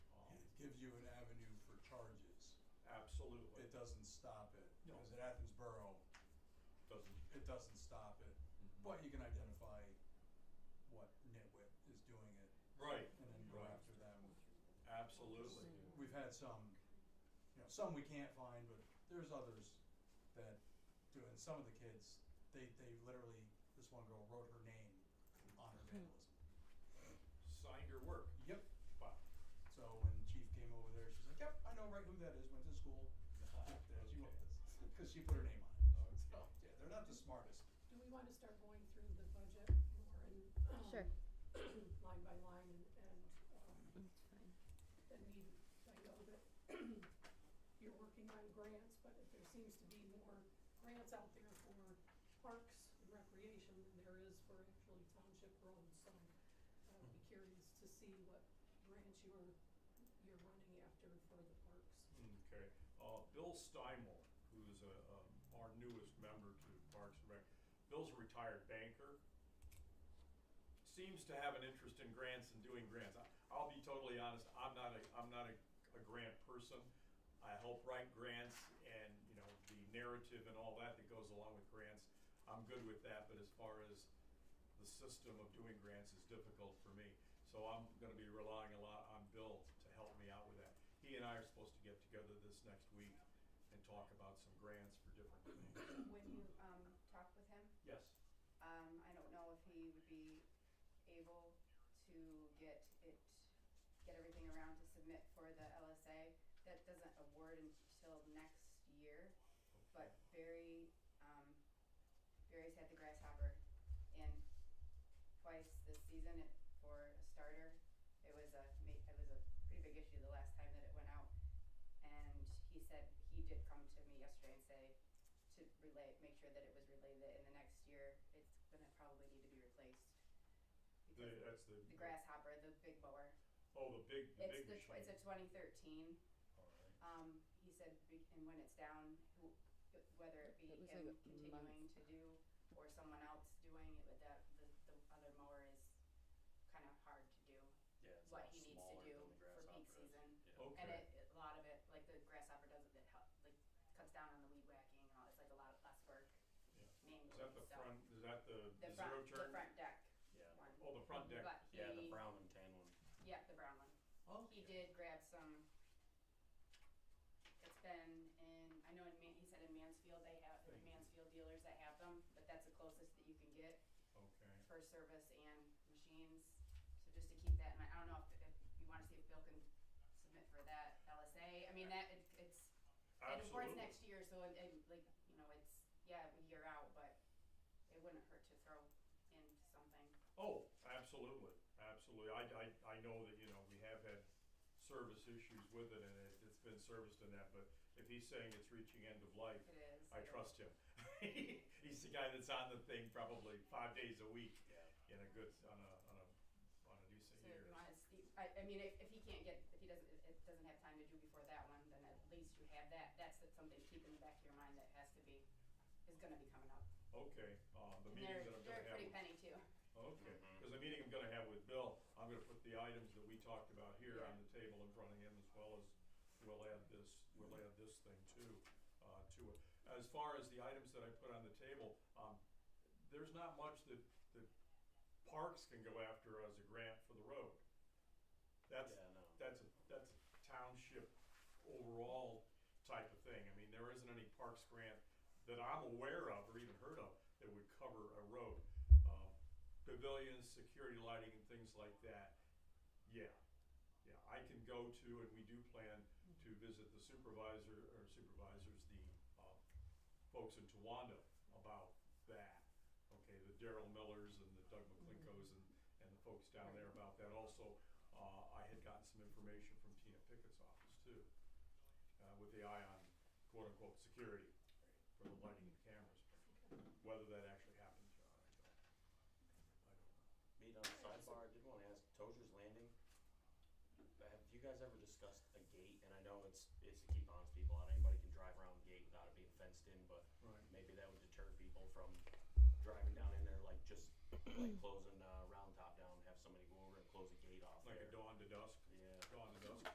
it doesn't stop it. No. Because at Athens Borough, doesn't. it doesn't stop it. But you can identify what nitwit is doing it Right, and then go Right. after them. absolutely. We've had some, you know, some we can't find, but there's others that do, and some of the kids, they, they literally, this one girl wrote her name on her vandalism. Signed your work. Yep, Wow. so when Chief came over there, she's like, yep, I know right who that is, went to school, that she Okay. was, cause she put her name on it. So, Okay. yeah, they're not the smartest. Do we want to start going through the budget more and, Sure. um, line by line and, and, um, It's then fine. we, I know that you're working on grants, but if there seems to be more grants out there for parks and recreation than there is for actually township roads, so I would be curious to see what grants you're, you're running after for the parks. Okay, uh, Bill Steinmore, who is a, a, our newest member to Parks and Rec, Bill's a retired banker. Seems to have an interest in grants and doing grants. I, I'll be totally honest, I'm not a, I'm not a, a grant person. I help write grants and, you know, the narrative and all that that goes along with grants, I'm good with that, but as far as the system of doing grants is difficult for me. So I'm gonna be relying a lot on Bill to help me out with that. He and I are supposed to get together this next week and talk about some grants for different things. When you, um, talk with him, Yes. um, I don't know if he would be able to get it, get everything around to submit for the LSA. That doesn't award until next year, but Barry, um, Barry's had the grasshopper in twice this season It- for a starter. It was a, ma- it was a pretty big issue the last time that it went out. And he said, he did come to me yesterday and say, to relay, make sure that it was relayed that in the next year, it's gonna probably need to be replaced. The, Because that's the. the grasshopper, the big mower, Oh, the big, the big it's the, machine. tw- it's a twenty thirteen, All right. um, he said, be- and when it's down, who, whether it be It was him like a continuing month. to do or someone else doing it, but that, the, the other mower is kinda hard to do. Yeah, it's a what lot he needs to smaller do than the for grasshopper peak is. season. Yeah. Okay. And it, it- a lot of it, like the grasshopper does it, that help, like cuts down on the weed whacking and all, it's like a lot of less work Yeah. manually, Is that the so- front, is that the The zero front, the turn? front deck Yeah. one. Oh, the front deck. But Yeah, the he- brown and tan one. Yeah, the brown one. Oh. He did grab some. It's been in, I know in Man, he said in Mansfield they have, Thank the you. Mansfield dealers that have them, but that's the closest that you can get Okay. for service and machines. So just to keep that in mind, I don't know if, if you wanna see if Bill can submit for that LSA, I mean, that, it, it's, it awards Absolutely. next year, so it, it, like, you know, it's, yeah, a year out, but it wouldn't hurt to throw in something. Oh, absolutely, absolutely. I, I, I know that, you know, we have had service issues with it and it, it's been serviced in that, but if he's saying it's reaching end of life, It is. I it- trust him. He's the guy that's on the thing probably five days a week Yeah. in a good, on a, on a, on a decent So if year. you wanna see, I, I mean, if, if he can't get, if he doesn't, if it doesn't have time to do before that one, then at least you have that, that's the- something to keep in the back of your mind that has to be, is gonna be coming up. Okay, uh, the And meeting they're, that I'm they're gonna have, pretty with- penny too. okay, because the meeting I'm gonna have with Bill, I'm gonna put the items that we talked about here Yeah. on the table in front of him as well as we'll add this, we'll add this thing too, uh, to it. As far as the items that I put on the table, um, there's not much that, that parks can go after as a grant for the road. That's, yeah, no. that's a, that's a township overall type of thing. I mean, there isn't any parks grant that I'm aware of or even heard of that would cover a road. Um, Pavilions, security lighting and things like that, yeah. Yeah, I can go to, and we do plan to visit the supervisor, or supervisors, the, uh, folks in Towanda about that. Okay, the Daryl Millers and the Doug McClinkos and, and the folks down there about that also. Uh, I had gotten some information from Tina Pickett's office too, uh, with the eye on quote-unquote security for the lighting and cameras. Whether that actually happens or not, I don't, I don't know. Meet on the sidebar. I did want to ask Tozer's Landing. Have you guys ever discussed a gate? And I know it's it's to keep honest people out. Anybody can drive around the gate without it being fenced in, but Right. maybe that would deter people from driving down in there, like just like closing uh, round top down, have somebody go over and close a gate off. Like there. a dawn to dusk,